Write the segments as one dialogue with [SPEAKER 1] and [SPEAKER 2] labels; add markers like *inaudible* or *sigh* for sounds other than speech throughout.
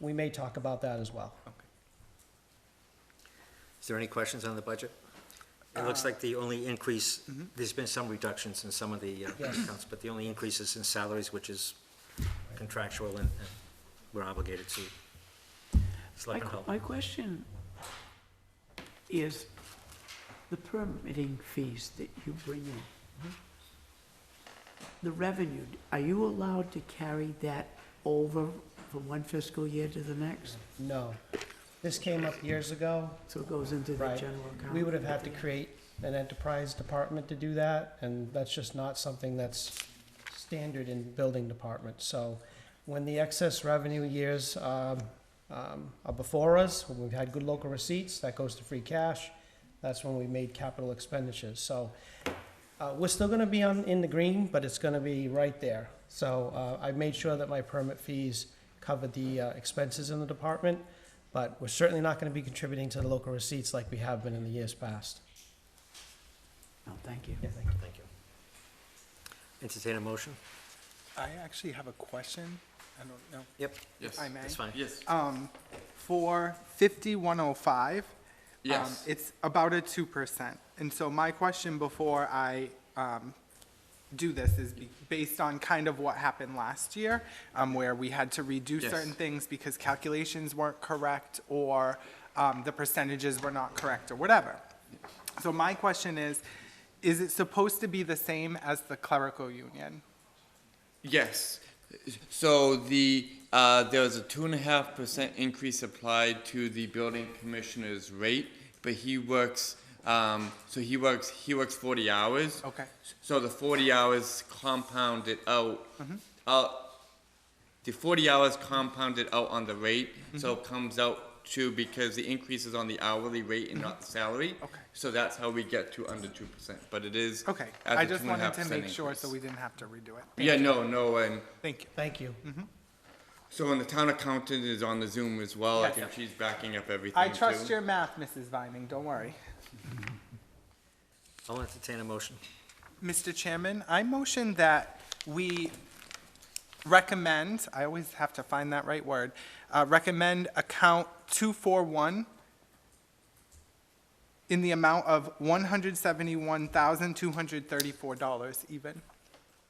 [SPEAKER 1] we may talk about that as well.
[SPEAKER 2] Is there any questions on the budget? It looks like the only increase, there's been some reductions in some of the uh,
[SPEAKER 1] Yes.
[SPEAKER 2] accounts, but the only increase is in salaries, which is contractual and and we're obligated to.
[SPEAKER 3] My,
[SPEAKER 2] Selectman Hull.
[SPEAKER 3] my question is the permitting fees that you bring in.
[SPEAKER 1] Mm-hmm.
[SPEAKER 3] The revenue, are you allowed to carry that over from one fiscal year to the next?
[SPEAKER 1] No. This came up years ago,
[SPEAKER 3] So it goes into the
[SPEAKER 1] Right.
[SPEAKER 3] general account?
[SPEAKER 1] We would have had to create an enterprise department to do that, and that's just not something that's standard in building departments. So when the excess revenue years um, um, are before us, when we've had good local receipts, that goes to free cash. That's when we made capital expenditures. So uh, we're still gonna be on, in the green, but it's gonna be right there. So uh, I made sure that my permit fees covered the uh, expenses in the department but we're certainly not going to be contributing to the local receipts like we have been in the years past.
[SPEAKER 3] No, thank you.
[SPEAKER 2] Thank you. Entertain a motion?
[SPEAKER 4] I actually have a question. I don't know.
[SPEAKER 2] Yep.
[SPEAKER 5] Yes.
[SPEAKER 4] I may.
[SPEAKER 2] That's fine.
[SPEAKER 5] Yes.
[SPEAKER 4] Um, for fifty-one oh five.
[SPEAKER 5] Yes.
[SPEAKER 4] It's about a two percent. And so my question before I, um, do this is be- based on kind of what happened last year, um, where we had to redo
[SPEAKER 5] Yes.
[SPEAKER 4] certain things because calculations weren't correct or, um, the percentages were not correct or whatever. So my question is, is it supposed to be the same as the clerical union?
[SPEAKER 5] Yes. So the, uh, there was a two and a half percent increase applied to the building commissioner's rate, but he works, um, so he works, he works forty hours.
[SPEAKER 4] Okay.
[SPEAKER 5] So the forty hours compounded out,
[SPEAKER 4] Mm-hmm.
[SPEAKER 5] out, the forty hours compounded out on the rate, so
[SPEAKER 4] Mm-hmm.
[SPEAKER 5] it comes out to, because the increase is on the hourly rate and not the salary.
[SPEAKER 4] Mm-hmm. Okay.
[SPEAKER 5] So that's how we get to under two percent, but it is.
[SPEAKER 4] Okay,
[SPEAKER 5] at
[SPEAKER 4] I
[SPEAKER 5] the
[SPEAKER 4] just
[SPEAKER 5] two and a
[SPEAKER 4] wanted
[SPEAKER 5] half
[SPEAKER 4] to
[SPEAKER 5] percent
[SPEAKER 4] make sure
[SPEAKER 5] increase.
[SPEAKER 4] so we didn't have to redo it.
[SPEAKER 5] Yeah, no, no, and
[SPEAKER 4] Thank you. Mm-hmm.
[SPEAKER 1] Thank you.
[SPEAKER 5] so and the town accountant is on the Zoom as well. I
[SPEAKER 4] Yes.
[SPEAKER 5] think she's backing up everything
[SPEAKER 4] I trust
[SPEAKER 5] too.
[SPEAKER 4] your math, Mrs. Vining, don't worry.
[SPEAKER 2] I'll entertain a motion.
[SPEAKER 4] Mr. Chairman, I motion that we recommend, I always have to find that right word, uh, recommend account 241 in the amount of $171,234 even.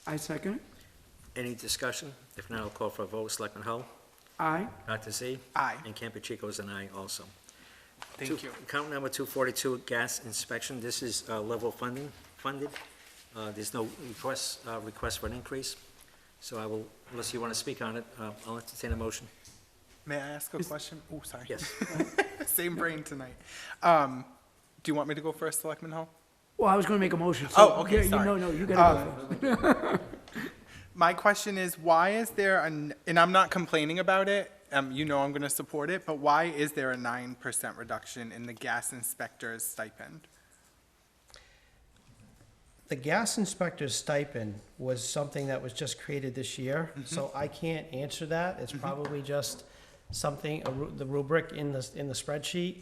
[SPEAKER 3] I second it.
[SPEAKER 2] Any discussion? If not, I'll call for a vote. Selectman Hull?
[SPEAKER 3] Aye.
[SPEAKER 2] Dr. Z?
[SPEAKER 4] Aye.
[SPEAKER 2] And Campuchico is an aye also.
[SPEAKER 4] Thank
[SPEAKER 2] Two-
[SPEAKER 4] you.
[SPEAKER 2] Account number 242, gas inspection. This is uh, level funding, funded. Uh, There's no request, uh, request for an increase. So I will, unless you want to speak on it, uh, I'll entertain a motion.
[SPEAKER 4] May I ask a question? Oh, sorry.
[SPEAKER 2] Yes.
[SPEAKER 4] *laughs* Same brain tonight. Um, Do you want me to go first, Selectman Hall?
[SPEAKER 3] Well, I was gonna make a motion, so.
[SPEAKER 4] Oh, okay,
[SPEAKER 3] yeah, you-
[SPEAKER 4] sorry.
[SPEAKER 3] No, no, you
[SPEAKER 1] Uh,
[SPEAKER 3] gotta go. first.
[SPEAKER 4] My question is, why is there an, and I'm not complaining about it, um, you know I'm gonna support it, but why is there a nine percent reduction in the gas inspector's stipend?
[SPEAKER 1] The gas inspector's stipend was something that was just created this year,
[SPEAKER 4] Mm-hmm.
[SPEAKER 1] so I can't answer that. It's probably just something, a ru- the rubric in the, in the spreadsheet.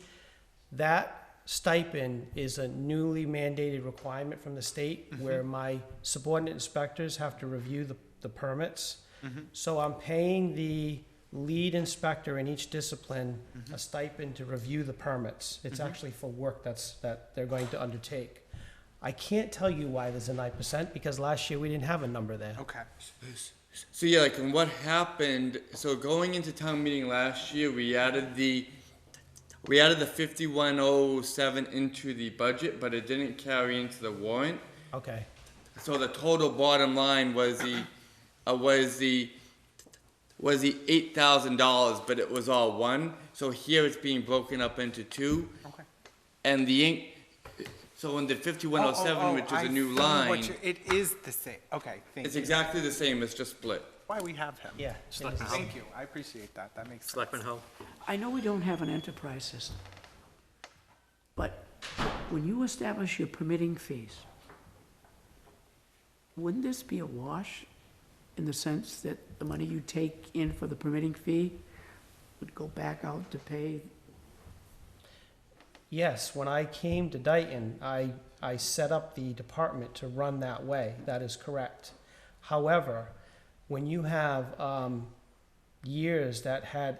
[SPEAKER 1] That stipend is a newly mandated requirement from the state where my subordinate inspectors have to review the, the permits. So I'm paying the lead inspector in each discipline a stipend to review the permits. It's actually for work that's, that they're going to undertake. I can't tell you why there's a nine percent, because last year we didn't have a number there.
[SPEAKER 4] Okay,
[SPEAKER 5] So yeah, like and what happened? So going into town meeting last year, we added the, we added the fifty-one oh seven into the budget, but it didn't carry into the warrant.
[SPEAKER 1] Okay,
[SPEAKER 5] So the total bottom line was the, uh, was the, was the eight thousand dollars, but it was all one. So here it's being broken up into two.
[SPEAKER 4] okay.
[SPEAKER 5] And the ink, so in the fifty-one oh
[SPEAKER 4] Oh, oh,
[SPEAKER 5] seven, which is
[SPEAKER 4] I
[SPEAKER 5] a new
[SPEAKER 4] see what
[SPEAKER 5] line,
[SPEAKER 4] you're- It is the same, okay, thank
[SPEAKER 5] it's
[SPEAKER 4] you.
[SPEAKER 5] exactly the same, it's just split.
[SPEAKER 4] Why we have him.
[SPEAKER 1] yeah. it is.
[SPEAKER 4] Thank you, I appreciate that, that makes sense.
[SPEAKER 2] Selectman Hull?
[SPEAKER 3] I know we don't have an enterprise system, but when you establish your permitting fees, wouldn't this be a wash in the sense that the money you take in for the permitting fee would go back out to pay?
[SPEAKER 1] Yes, when I came to Dayton, I, I set up the department to run that way. That is correct. However, when you have um, years that had